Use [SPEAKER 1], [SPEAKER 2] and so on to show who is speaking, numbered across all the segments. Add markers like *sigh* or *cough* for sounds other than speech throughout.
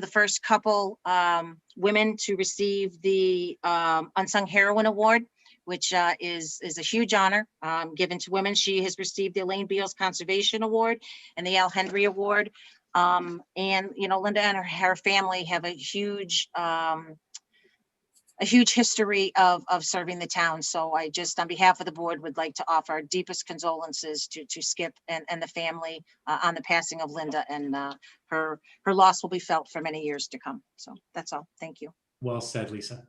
[SPEAKER 1] the first couple um, women to receive the um, Unsung Heroine Award, which uh, is, is a huge honor um, given to women. She has received the Elaine Beals Conservation Award and the Al Hendry Award. Um, And, you know, Linda and her, her family have a huge, um, a huge history of, of serving the town. So I just, on behalf of the board, would like to offer our deepest condolences to, to Skip and, and the family uh, on the passing of Linda and uh, her, her loss will be felt for many years to come. So that's all. Thank you.
[SPEAKER 2] Well said, Lisa.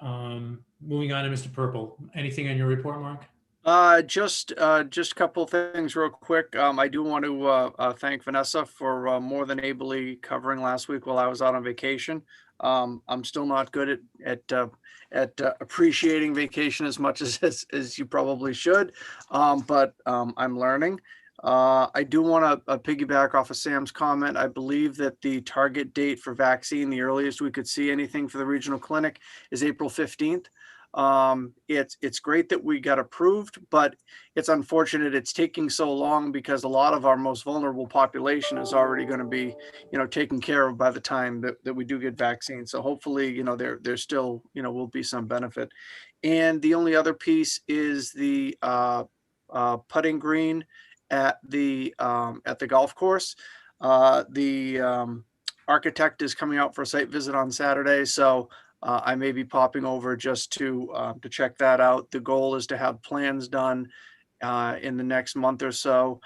[SPEAKER 2] Um, moving on to Mr. Purple. Anything on your report, Mark?
[SPEAKER 3] Uh, just, uh, just a couple things real quick. Um, I do want to, uh, uh, thank Vanessa for, uh, more than ably covering last week while I was out on vacation. Um, I'm still not good at, at, uh, at uh, appreciating vacation as much *laughs* as, as, as you probably should. Um, but, um, I'm learning. Uh, I do want to piggyback off of Sam's comment. I believe that the target date for vaccine, the earliest we could see anything for the regional clinic is April 15th. Um, it's it's great that we got approved, but it's unfortunate it's taking so long because a lot of our most vulnerable population is already going to be, you know, taken care of by the time that, that we do get vaccines. So hopefully, you know, there there's still, you know, will be some benefit. And the only other piece is the uh, uh, putting green at the um, at the golf course. Uh, the um, architect is coming out for a site visit on Saturday, so uh, I may be popping over just to, uh, to check that out. The goal is to have plans done uh, in the next month or so,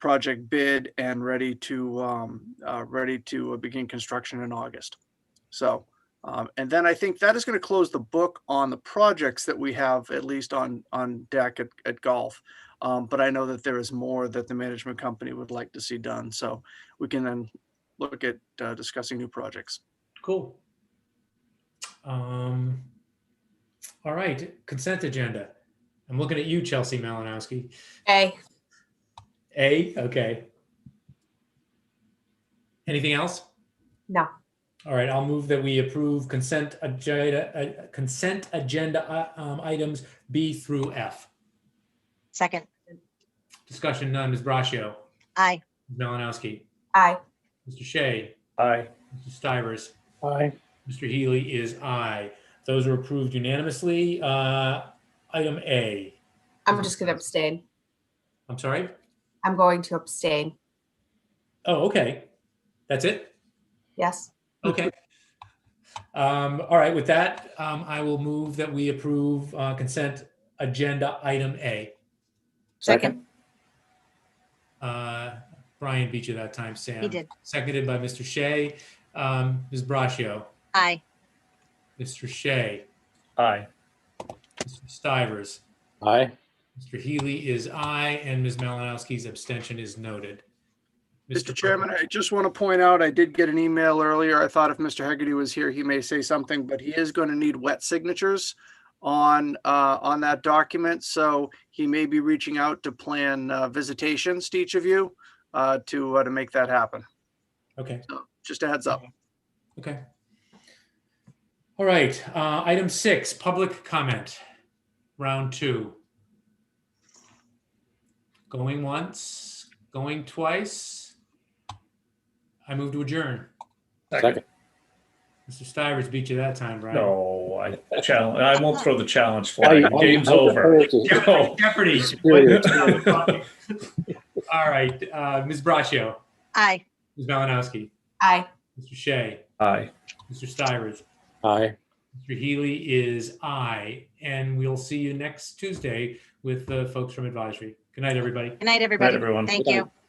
[SPEAKER 3] project bid and ready to, um, uh, ready to begin construction in August. So, um, and then I think that is going to close the book on the projects that we have, at least on, on deck at, at golf. Um, But I know that there is more that the management company would like to see done, so we can then look at uh, discussing new projects.
[SPEAKER 2] Cool. Um, all right, consent agenda. I'm looking at you, Chelsea Malinowski.
[SPEAKER 4] Hey,
[SPEAKER 2] A, okay. Anything else?
[SPEAKER 4] no,
[SPEAKER 2] All right, I'll move that we approve consent agenda, uh, consent agenda uh, um, items B through F.
[SPEAKER 1] Second,
[SPEAKER 2] Discussion none. Ms. Braccio,
[SPEAKER 1] aye.
[SPEAKER 2] Ms. Malinowski,
[SPEAKER 4] aye,
[SPEAKER 2] Mr. Shea,
[SPEAKER 5] Aye.
[SPEAKER 2] Mr. Stivers,
[SPEAKER 5] Aye.
[SPEAKER 2] Mr. Healy is aye. Those are approved unanimously. Uh, Item A,
[SPEAKER 4] I'm just gonna abstain.
[SPEAKER 2] I'm sorry?
[SPEAKER 4] I'm going to abstain.
[SPEAKER 2] Oh, okay. That's it?
[SPEAKER 4] Yes,
[SPEAKER 2] Okay. Um, All right, with that, um, I will move that we approve uh, consent agenda item A.
[SPEAKER 1] Second.
[SPEAKER 2] Uh, Brian beat you that time, Sam.
[SPEAKER 1] He did.
[SPEAKER 2] Seconded by Mr. Shea. Um, Ms. Braccio,
[SPEAKER 1] Aye.
[SPEAKER 2] Mr. Shea,
[SPEAKER 5] Aye.
[SPEAKER 2] Mr. Stivers,
[SPEAKER 5] Aye.
[SPEAKER 2] Mr. Healy is aye, and Ms. Malinowski's abstention is noted.
[SPEAKER 3] Mr.
[SPEAKER 2] Burke?
[SPEAKER 3] Chairman, I just want to point out, I did get an email earlier. I thought if Mr. Hegarty was here, he may say something, but he is going to need wet signatures on, uh, on that document. So he may be reaching out to plan uh, visitations to each of you uh, to, uh, to make that happen.
[SPEAKER 2] Okay,
[SPEAKER 3] Just a heads up.
[SPEAKER 2] okay. All right, uh, item six, public comment, round two. Going once, going twice. I move to adjourn.
[SPEAKER 5] Second.
[SPEAKER 2] Mr. Stivers beat you that time, Brian.
[SPEAKER 5] No, I challenge, I won't throw the challenge flag. Game's over.
[SPEAKER 2] Jeopardy, Jeopardy.
[SPEAKER 5] Serious.
[SPEAKER 2] *laughs* All right, uh, Ms. Braccio,
[SPEAKER 1] Aye.
[SPEAKER 2] Ms. Malinowski,
[SPEAKER 4] aye.
[SPEAKER 2] Mr. Shea,
[SPEAKER 5] Aye.
[SPEAKER 2] Mr. Stivers.
[SPEAKER 5] Aye.
[SPEAKER 2] Mr. Healy is aye, and we'll see you next Tuesday with the folks from advisory. Good night, everybody.
[SPEAKER 1] Good night,
[SPEAKER 5] Night,
[SPEAKER 1] everybody.
[SPEAKER 5] everyone.
[SPEAKER 1] Thank
[SPEAKER 5] Good
[SPEAKER 1] you.